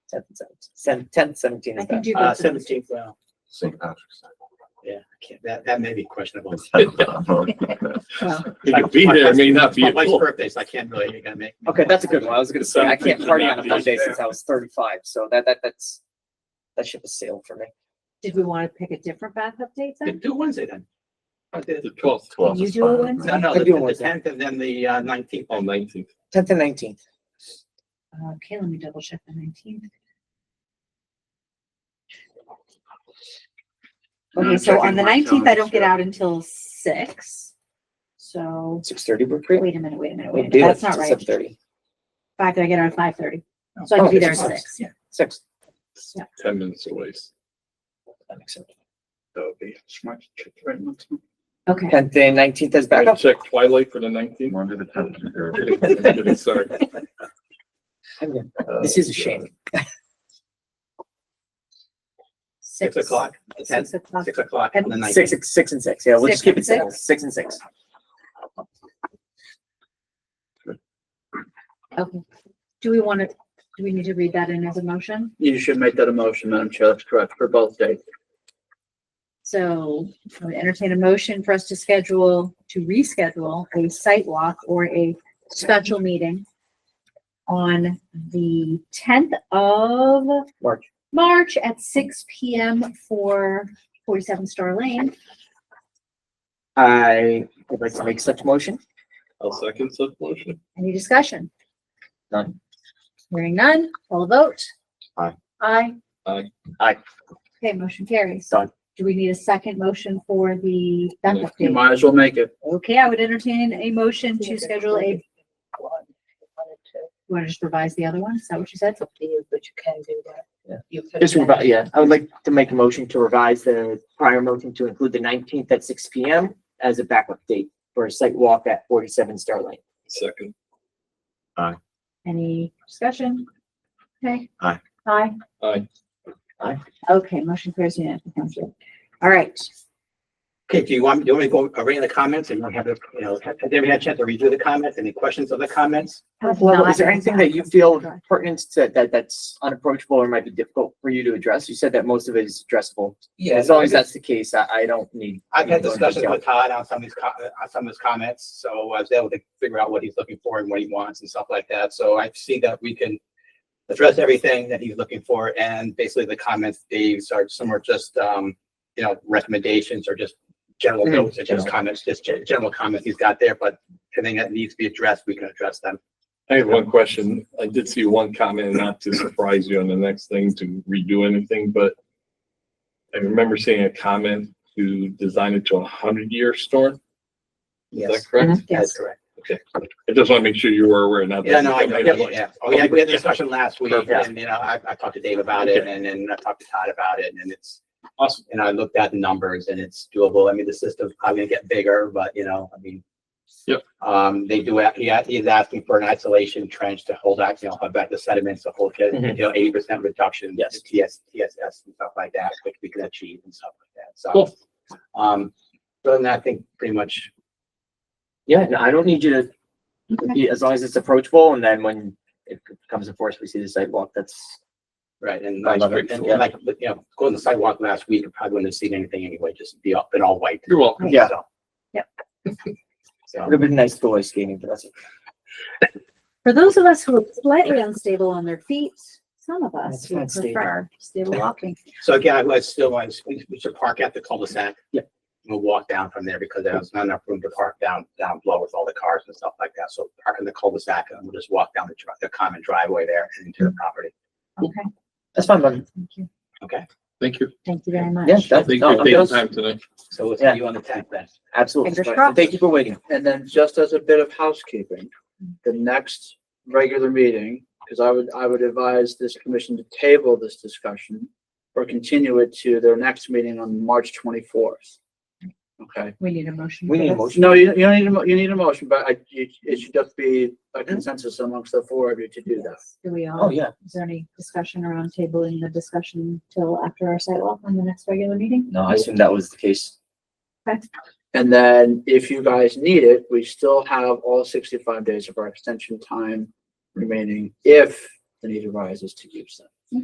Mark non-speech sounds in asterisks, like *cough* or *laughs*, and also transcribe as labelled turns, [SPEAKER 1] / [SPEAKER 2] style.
[SPEAKER 1] Tenth, seventeenth, tenth, seventeenth.
[SPEAKER 2] I can do
[SPEAKER 3] Uh,
[SPEAKER 2] both of those.
[SPEAKER 3] seventeenth, well,
[SPEAKER 4] St. Patrick's.
[SPEAKER 3] can't- that, that may be questionable.
[SPEAKER 4] Day.
[SPEAKER 2] Well,
[SPEAKER 5] He could be there, may not be
[SPEAKER 3] My wife's
[SPEAKER 5] able.
[SPEAKER 3] birthday, so I can't really, you're gonna make. me-
[SPEAKER 1] Okay, that's a good one. I was gonna say, I can't
[SPEAKER 5] Seventeenth,
[SPEAKER 1] party on a Monday
[SPEAKER 5] seventeenth.
[SPEAKER 1] since I was thirty-five, so that, that, that's, that ship has sailed for me.
[SPEAKER 2] Did we want to pick a different backup date
[SPEAKER 3] Yeah,
[SPEAKER 2] then?
[SPEAKER 3] Do Wednesday then. Wednesday,
[SPEAKER 5] The twelfth,
[SPEAKER 4] Twelve
[SPEAKER 2] you
[SPEAKER 4] is
[SPEAKER 2] do a
[SPEAKER 4] fine.
[SPEAKER 2] Wednesday?
[SPEAKER 3] No, no,
[SPEAKER 1] Could
[SPEAKER 3] the
[SPEAKER 1] do
[SPEAKER 3] the
[SPEAKER 1] Wednesday.
[SPEAKER 3] tenth and then the uh, nineteenth.
[SPEAKER 1] Oh,
[SPEAKER 5] on nineteenth.
[SPEAKER 1] Tenth and nineteenth.
[SPEAKER 2] Okay, let me double check the nineteenth.
[SPEAKER 4] I'm
[SPEAKER 2] Okay, so
[SPEAKER 4] checking
[SPEAKER 2] on the
[SPEAKER 4] my
[SPEAKER 2] nineteenth, I don't
[SPEAKER 4] calendar,
[SPEAKER 2] get
[SPEAKER 4] too.
[SPEAKER 2] out until six. So,
[SPEAKER 1] Six thirty, we're great.
[SPEAKER 2] wait a minute, wait a minute,
[SPEAKER 1] We
[SPEAKER 2] wait a
[SPEAKER 1] do
[SPEAKER 2] minute,
[SPEAKER 1] it
[SPEAKER 2] that's not
[SPEAKER 1] till
[SPEAKER 2] right.
[SPEAKER 1] 7:30.
[SPEAKER 2] Five, I get out at five thirty, so I can
[SPEAKER 1] Oh,
[SPEAKER 2] be there at
[SPEAKER 1] it's
[SPEAKER 2] six.
[SPEAKER 3] Yeah.
[SPEAKER 1] Six.
[SPEAKER 5] ten minutes away.
[SPEAKER 1] That makes sense.
[SPEAKER 3] So the smart church right next to me.
[SPEAKER 2] Okay,
[SPEAKER 1] Tenth and nineteenth is
[SPEAKER 5] Can I
[SPEAKER 1] backup.
[SPEAKER 5] Check Twilight for the nineteenth. *laughs*
[SPEAKER 4] Monday the tenth.
[SPEAKER 5] I'm kidding, Sorry.
[SPEAKER 1] I'm good. This is a shame.
[SPEAKER 2] six.
[SPEAKER 3] Six o'clock, the tenth,
[SPEAKER 2] Six o'clock.
[SPEAKER 3] six o'clock on the
[SPEAKER 1] Six,
[SPEAKER 3] nineteenth.
[SPEAKER 1] six, six and six. Yeah, we'll just
[SPEAKER 2] Six
[SPEAKER 1] keep it
[SPEAKER 2] and
[SPEAKER 1] simple. Six and six.
[SPEAKER 2] Okay. Do we want to, do we need to read that in as a motion?
[SPEAKER 3] You should make that a motion, Madam Chair, that's correct, for both dates.
[SPEAKER 2] So I would entertain a motion for us to schedule, to reschedule a site walk or a special meeting on the tenth of
[SPEAKER 1] March.
[SPEAKER 2] March at six P M for forty-seven Star Lane.
[SPEAKER 1] I would like to make such motion.
[SPEAKER 5] I'll second such motion.
[SPEAKER 2] Any discussion?
[SPEAKER 1] None.
[SPEAKER 2] Hearing none, all vote.
[SPEAKER 4] Aye.
[SPEAKER 2] Aye.
[SPEAKER 5] Aye.
[SPEAKER 1] Aye.
[SPEAKER 2] Okay, motion carries.
[SPEAKER 1] Done.
[SPEAKER 2] Do we need a second motion for the backup
[SPEAKER 3] You
[SPEAKER 2] date?
[SPEAKER 3] might as well make it.
[SPEAKER 2] Okay, I would entertain a motion to schedule a. You want to just revise the other one? Is that what you said?
[SPEAKER 6] It's up to you, but you can do that.
[SPEAKER 1] Yeah.
[SPEAKER 6] You can
[SPEAKER 1] Just
[SPEAKER 6] add
[SPEAKER 1] revise, yeah, I would like to make a motion to revise the prior motion to include the nineteenth at six P M as a backup date for a site walk at forty-seven Star Lane.
[SPEAKER 5] Second.
[SPEAKER 2] Any discussion? Okay.
[SPEAKER 4] Aye.
[SPEAKER 2] Aye.
[SPEAKER 5] Aye.
[SPEAKER 1] Aye.
[SPEAKER 2] Okay, motion carries unanimously. Thank you. All right,
[SPEAKER 3] Okay, do you want, do you want me to go around the comments and you have, to, you know, have have you had a chance to redo the comments? Any questions of the comments?
[SPEAKER 2] That's
[SPEAKER 1] Well,
[SPEAKER 2] not
[SPEAKER 1] is there anything that you
[SPEAKER 2] exactly
[SPEAKER 1] feel
[SPEAKER 2] correct.
[SPEAKER 1] pertinent to, that, that's unapproachable or might be difficult for you to address? You said that most of it is addressable.
[SPEAKER 3] Yeah,
[SPEAKER 1] As long as that's the case, I, I don't need.
[SPEAKER 3] I've had
[SPEAKER 1] need to go into
[SPEAKER 3] discussions
[SPEAKER 1] detail.
[SPEAKER 3] with Todd on some of his, co- on some of his comments, so I was able to figure out what he's looking for and what he wants and stuff like that. So I see that we can address everything that he's looking for, and basically the comments, these are some are just, um, you know, recommendations or just general
[SPEAKER 1] Mhm.
[SPEAKER 3] notes, or just comments, just gen- general comments he's got there, but anything that needs to be addressed, we can address them.
[SPEAKER 5] I have one question. I did see one comment, not to surprise you on the next thing to redo anything, but I remember seeing a comment to design it to a hundred-year storm. Is that
[SPEAKER 3] Yes.
[SPEAKER 5] correct?
[SPEAKER 2] Yes,
[SPEAKER 3] correct.
[SPEAKER 5] I just want to make sure you were aware, not that.
[SPEAKER 3] Yeah, no, I,
[SPEAKER 5] that might
[SPEAKER 3] yeah,
[SPEAKER 5] have-
[SPEAKER 3] yeah. Oh, yeah, we had a
[SPEAKER 5] Yeah.
[SPEAKER 3] discussion last week
[SPEAKER 5] Perfect.
[SPEAKER 3] and, you know, I, I talked to Dave about it and then I talked to Todd about it and it's awesome. And I looked at the numbers and it's doable. I mean, the system's probably gonna get bigger, but you know, I mean.
[SPEAKER 5] Yep.
[SPEAKER 3] Um, they do, a- yeah, he's asking for an isolation trench to hold out, you know, hold back the sediments, to hold, you
[SPEAKER 5] Mm-hmm.
[SPEAKER 1] Mhm.
[SPEAKER 3] know, eighty percent reduction.
[SPEAKER 1] Yes.
[SPEAKER 3] TS, TSS and stuff like that, which we can achieve and stuff like that. So,
[SPEAKER 5] Cool.
[SPEAKER 3] um, other than that, I think pretty much
[SPEAKER 1] Yeah, no, I don't need you to, yeah, as long as it's approachable and then when it comes to force, we see the sidewalk, that's.
[SPEAKER 3] Right, and
[SPEAKER 1] I
[SPEAKER 3] like,
[SPEAKER 1] love
[SPEAKER 3] and
[SPEAKER 1] it.
[SPEAKER 3] and
[SPEAKER 1] Yeah.
[SPEAKER 3] like, you know, going on the sidewalk last week, I probably wouldn't have seen anything anyway, just be all, been all white.
[SPEAKER 5] You're welcome.
[SPEAKER 1] Yeah.
[SPEAKER 3] So.
[SPEAKER 2] Yep.
[SPEAKER 1] It
[SPEAKER 3] So,
[SPEAKER 1] would have been nice to go ice skating, but that's.
[SPEAKER 2] For those of us who are slightly unstable on their feet, some of us
[SPEAKER 1] That's
[SPEAKER 2] would
[SPEAKER 1] not stable.
[SPEAKER 2] prefer stable walking.
[SPEAKER 3] so again, I was still, I was- we we should park at the cul-de-sac.
[SPEAKER 1] Yeah.
[SPEAKER 3] We'll walk down from there because there's not enough room to park down, down below with all the cars and stuff like that. So park in the cul-de-sac and we'll just walk down the, dri- the common driveway there and into the property.
[SPEAKER 2] Okay,
[SPEAKER 1] That's fine, but
[SPEAKER 2] thank you.
[SPEAKER 5] Thank you.
[SPEAKER 2] Thank you very much.
[SPEAKER 1] yeah, that's,
[SPEAKER 5] Thank you for
[SPEAKER 1] no,
[SPEAKER 5] taking
[SPEAKER 1] that's,
[SPEAKER 5] time tonight.
[SPEAKER 3] So we'll
[SPEAKER 1] Yeah.
[SPEAKER 3] see you on the tenth then.
[SPEAKER 1] absolutely.
[SPEAKER 2] Fingers
[SPEAKER 1] But
[SPEAKER 2] crossed.
[SPEAKER 1] Thank you for waiting.
[SPEAKER 7] And then just as a bit of housekeeping, the next regular meeting, because I would, I would advise this commission to table this discussion or continue it to their next meeting on March twenty-fourth. Okay.
[SPEAKER 2] We need a motion.
[SPEAKER 1] We
[SPEAKER 2] for
[SPEAKER 1] need a
[SPEAKER 2] this.
[SPEAKER 1] motion.
[SPEAKER 7] No, you, you don't need a, mo- you need a motion, but I, it, it should just be a consensus amongst the four of you to do that.
[SPEAKER 2] Yes. Do we all?
[SPEAKER 1] Oh, yeah.
[SPEAKER 2] Is there any discussion around tabling the discussion till after our sidewalk on the next regular meeting?
[SPEAKER 1] No, I assume that was the case.
[SPEAKER 7] And then if you guys need it, we still have all sixty-five days of our extension time remaining if the need arises to use them.